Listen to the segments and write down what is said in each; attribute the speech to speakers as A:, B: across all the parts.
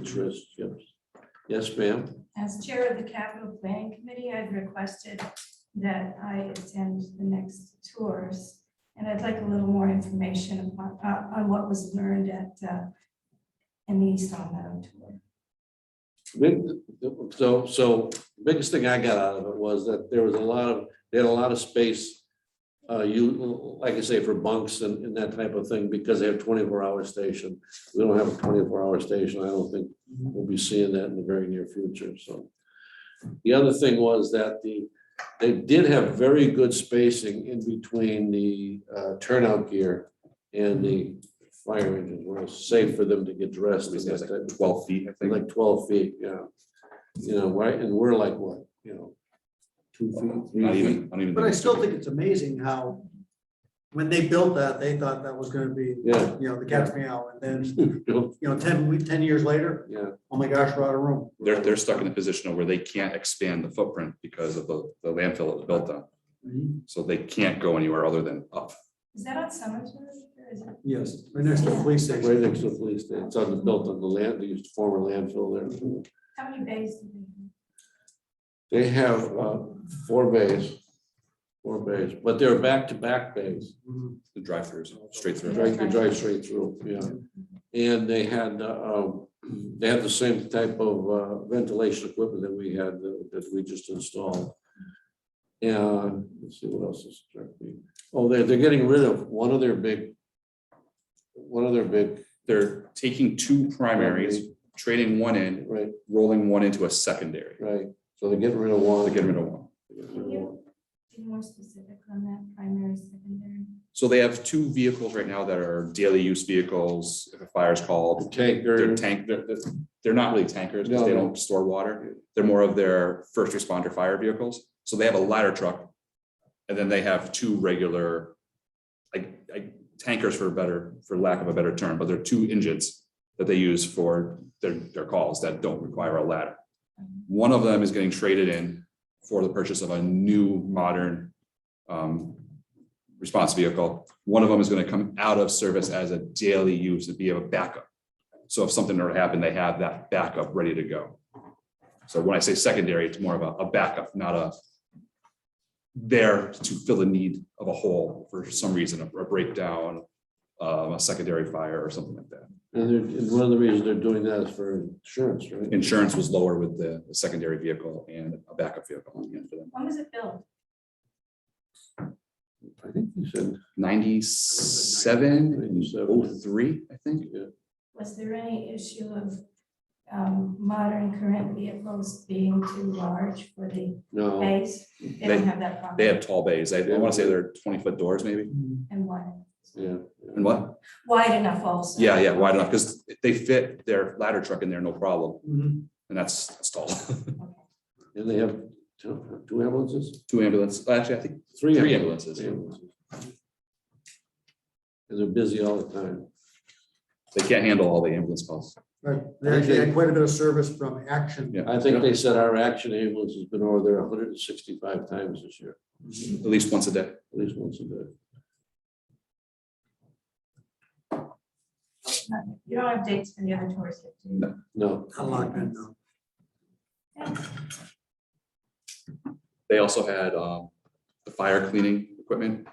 A: interest, yes. Yes, ma'am.
B: As Chair of the Capital Planning Committee, I've requested that I attend the next tours. And I'd like a little more information upon- uh, on what was learned at, uh, in the East Long Meadow tour.
A: Big- So, so biggest thing I got out of it was that there was a lot of, they had a lot of space. Uh, you, like I say, for bunks and, and that type of thing, because they have twenty-four hour station. We don't have a twenty-four hour station. I don't think
C: Mm-hmm.
A: we'll be seeing that in the very near future, so. The other thing was that the, they did have very good spacing in between the uh, turnout gear and the fire engines, where it's safe for them to get dressed. and
C: At least it was
A: that type
C: like
A: of-
C: twelve feet, I think.
A: like twelve feet, yeah. You know, right, and we're like what, you know? Two feet,
C: Not
A: three feet,
C: even, not even.
D: But I still think it's amazing how, when they built that, they thought that was gonna be,
A: yeah.
D: you know, the cat's meow, and then,
A: No,
D: you know, ten, we, ten years later,
A: Yeah,
D: oh my gosh, we're out of room.
C: They're, they're stuck in a position where they can't expand the footprint because of the, the landfill it was built on.
A: Mm-hmm.
C: So they can't go anywhere other than up.
B: Is that on Summersworth? or is it-
D: Yes, right next to the police
A: right
D: station,
A: next to the police station, it's on the built on the land, they used former landfill there.
B: How many bays do they
A: They have uh, four bays, four bays, but they're back to back bays,
D: Mhm.
C: The drive-throughs, straight
A: You
C: through.
A: drive, you drive straight through, yeah. And they had, uh, um, they had the same type of uh, ventilation equipment that we had, that that we just installed. And let's see what else is directly, oh, they're, they're getting rid of one of their big, one of their big,
C: They're taking two primaries, trading one in,
A: right,
C: rolling one into a secondary.
A: right, so they're getting rid of one.
C: They're getting rid of one.
B: do? Can you be more specific on that primary, secondary?
C: So they have two vehicles right now that are daily use vehicles, if a fire is called,
A: Tanker,
C: they're tank, they're, they're- they're not really tankers because they
A: No.
C: don't store water. They're more of their first responder fire vehicles. So they have a ladder truck. And then they have two regular, like, like tankers for better, for lack of a better term, but they're two engines that they use for their, their calls that don't require a ladder. One of them is getting traded in for the purchase of a new modern um, response vehicle. One of them is going to come out of service as a daily use to be a backup. So if something were to happen, they have that backup ready to go. So when I say secondary, it's more of a, a backup, not a there to fill the need of a hole for some reason, a a breakdown, um, a secondary fire or something like that.
A: and they're, and one of the reasons they're doing that is for insurance, right?
C: Insurance was lower with the the secondary vehicle and a backup vehicle on the end for them.
B: When was it built?
A: I think you said,
C: Ninety-seven, oh three, I think.
A: yeah.
B: Was there any issue of um, modern current vehicles being too large for the
A: no,
B: bays? They don't have that problem.
C: They have tall bays. I want to say they're twenty foot doors maybe.
D: Mm-hmm.
B: And wide.
A: yeah.
C: And what?
B: Wide enough also.
C: Yeah, yeah, wide enough because they fit their ladder truck in there, no problem.
D: Mhm.
C: And that's, that's tall.
A: And they have two two ambulances,
C: Two ambulances, actually, I think
A: three
C: Three
A: ambulances.
C: ambulances.
A: Three ambulances. And they're busy all the time.
C: They can't handle all the ambulance calls.
D: Right, they actually had quite a bit of service from Action.
C: Yeah.
A: I think they said our action ambulance has been over there hundred and sixty-five times this year,
C: At least once a day.
A: at least once a day.
B: You don't have dates for the other tours yet, do you?
A: No,
D: I like that, though.
C: They also had um, the fire cleaning equipment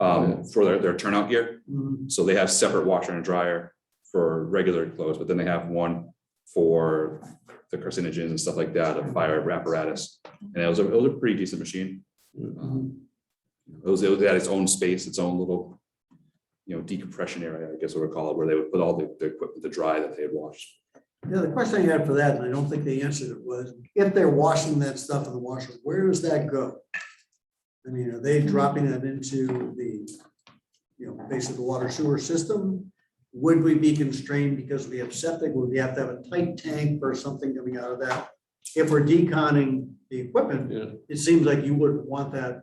C: um, for their, their turnout gear.
D: Mhm.
C: So they have separate washer and dryer for regular clothes, but then they have one for the carcinogens and stuff like that, a fire apparatus. And it was a, it was a pretty decent machine. Um, It was, it had its own space, its own little, you know, decompression area, I guess we would call it, where they would put all the, the equipment to dry that they had washed.
D: Yeah, the question I had for that, and I don't think they answered it, was if they're washing that stuff in the washer, where does that go? I mean, are they dropping that into the, you know, base of the water sewer system? Would we be constrained because we have septic? Would we have to have a tight tank or something coming out of that? If we're deconning the equipment,
A: yeah,
D: it seems like you wouldn't want that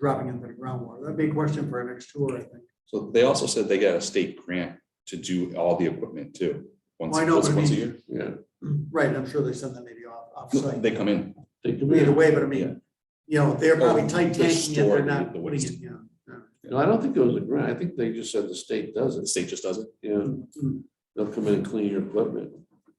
D: dropping into the groundwater. That'd be a question for our next tour, I think.
C: So they also said they got a state grant to do all the equipment too. Once,
D: Well, I know,
C: once
D: but I
C: once a
D: mean-
C: year.
A: yeah.
D: Right, and I'm sure they send that maybe off,
C: No,
D: offsite.
C: They come in.
A: They could be,
D: Either way, but I
C: Yeah.
D: mean, you know, they're probably
C: Oh,
D: tight
C: they're
D: tanking it, they're
C: storing
D: not
C: the
D: putting
C: waste.
D: it, yeah.
A: no, I don't think it was a grant. I think they just said the state does
C: The
A: it.
C: state just does it.
A: Yeah,
D: Mm, mm.
A: they'll come in and clean your equipment.